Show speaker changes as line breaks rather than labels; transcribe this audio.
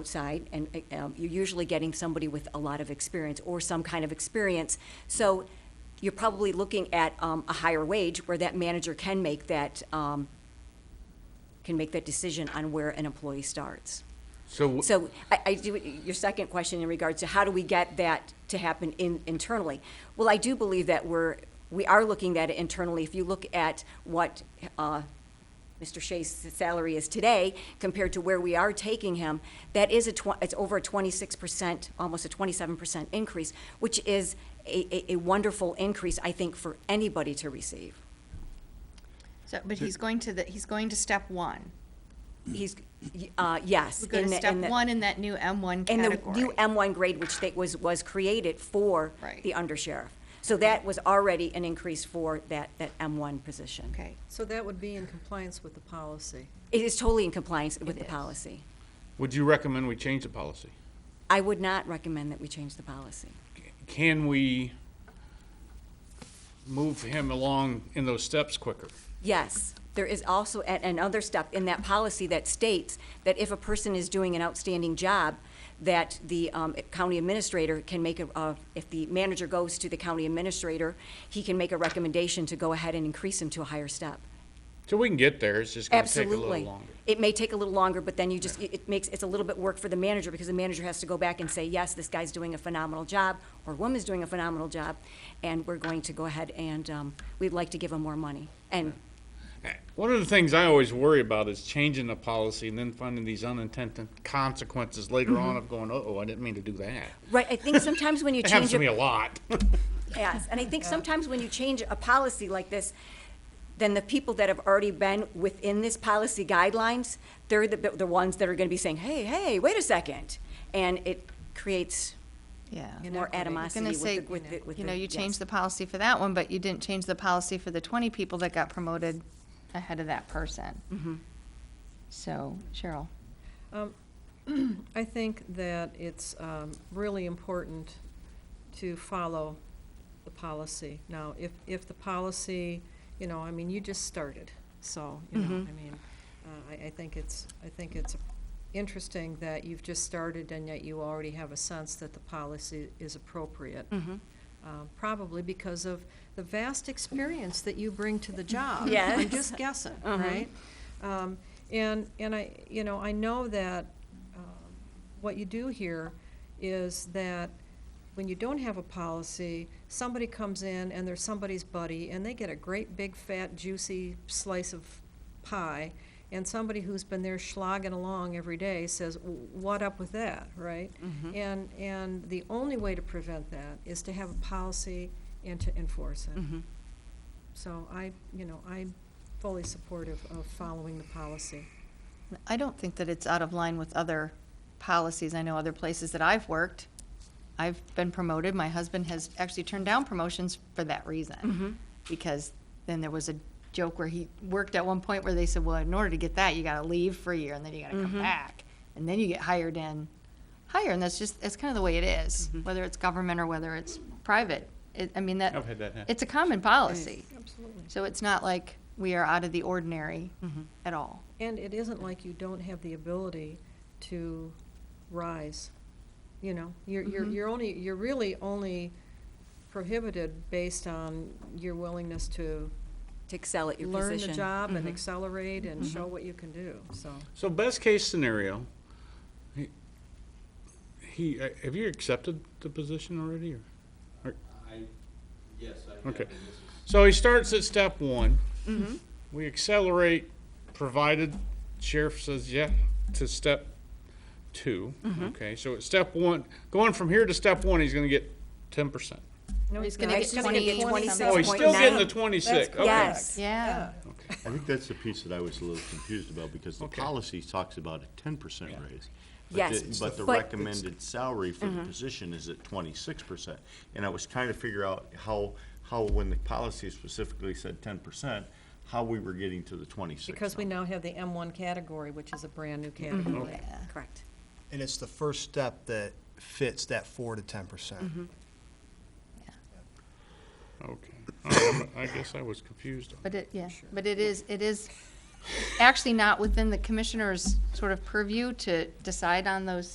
outside, and uh, um, you're usually getting somebody with a lot of experience or some kind of experience. So you're probably looking at um, a higher wage where that manager can make that, um, can make that decision on where an employee starts.
So, wh-
So I, I do, your second question in regards to how do we get that to happen in, internally? Well, I do believe that we're, we are looking at it internally. If you look at what, uh, Mr. Shea's salary is today compared to where we are taking him, that is a tw- it's over a twenty-six percent, almost a twenty-seven percent increase, which is a, a, a wonderful increase, I think, for anybody to receive.
So, but he's going to the, he's going to step one.
He's, uh, yes.
We're going
in
to
the-
step
in the-
one in that new M1
And the
category.
new M1 grade, which they, was, was created for
Right.
the undersheriff. So that was already an increase for that, that M1 position.
Okay,
So that would be in compliance with the policy.
It is totally in compliance with
It
the
is.
policy.
would you recommend we change the policy?
I would not recommend that we change the policy.
Can we move him along in those steps quicker?
Yes, there is also a- another step in that policy that states that if a person is doing an outstanding job, that the um, county administrator can make a, uh, if the manager goes to the county administrator, he can make a recommendation to go ahead and increase him to a higher step.
So we can get there, it's just gonna take a little
Absolutely.
longer.
It may take a little longer, but then you just, it it makes, it's a little bit work for the manager, because the manager has to go back and say, yes, this guy's doing a phenomenal job, or woman's doing a phenomenal job, and we're going to go ahead and, um, we'd like to give him more money. And
One of the things I always worry about is changing the policy and then finding these unintended consequences later on of going, oh, I didn't mean to do that.
Right, I think sometimes when you
It happens
Mm-hmm. change
to me a
a,
lot.
yes, and I think sometimes when you change a policy like this, then the people that have already been within this policy guidelines, they're the, the ones that are gonna be saying, hey, hey, wait a second. And it creates
yeah.
You know,
more
Inequity.
animosity
Gonna
with
say,
the, with the, with the.
You know, you changed
yes.
the policy for that one, but you didn't change the policy for the 20 people that got promoted ahead of that person.
Mm-hmm.
So Cheryl,
Um, I think that it's um, really important to follow the policy. Now, if, if the policy, you know, I mean, you just started, so, you know, I mean, uh, I, I think it's, I think it's interesting that you've just started and yet you already have a sense that the policy is appropriate.
Mm-hmm.
Um, Probably because of the vast experience that you bring to the job. I'm
Yes.
just guessing, right? Um, And, and I, you know, I know that um, what you do here is that when you don't have a policy, somebody comes in and they're somebody's buddy, and they get a great big fat juicy slice of pie, and somebody who's been there slogging along every day says, "W- what up with that, right? And, and the only way to prevent that is to have a policy and to enforce it. So I, you know, I'm fully supportive of following the policy.
I don't think that it's out of line with other policies. I know other places that I've worked, I've been promoted. My husband has actually turned down promotions for that reason. Because then there was a joke where he worked at one point where they said, well, in order to get that, you gotta leave for a year and then you gotta come back. And then you get hired in higher. And that's just, that's kind of the way it is, whether it's government or whether it's private. It, I mean, that,
I've had that happen.
it's a common policy.
Absolutely.
So it's not like we are out of the ordinary at all.
And it isn't like you don't have the ability to rise, you know? You're, you're,
Mm-hmm.
you're only, you're really only prohibited based on your willingness to
To excel at your
learn
position. Mm-hmm.
the job and accelerate and show what you can do, so.
So best case scenario, he- he, uh, have you accepted the position already or?
I, yes, I have,
Okay.
and this is
So he starts at step one. We accelerate, provided sheriff says yeah to step 2 Okay, so at step one, going from here to step one, he's going to get ten percent.
No,
He's
it's
gonna
not.
get
It's gonna
20
be
and
27.
Oh, he's still getting the
27.9.
twenty-six. Okay.
Yes.
Yeah.
I think that's the piece that I was a little confused about, because the
Okay.
policy talks about a ten percent raise. but
Yes,
the- But the
but-
recommended salary for the position is at twenty-six percent. And I was trying to figure out how, how, when the policy specifically said ten percent, how we were getting to the twenty-six.
Because we now have the M1 category, which is a brand-new
Mm-hmm.
category.
Correct.
And it's the first step that fits that four to ten percent.
Okay. All right, I guess I was confused on that.
But it, yeah, but it is, it is actually not within the commissioner's sort of purview to decide on those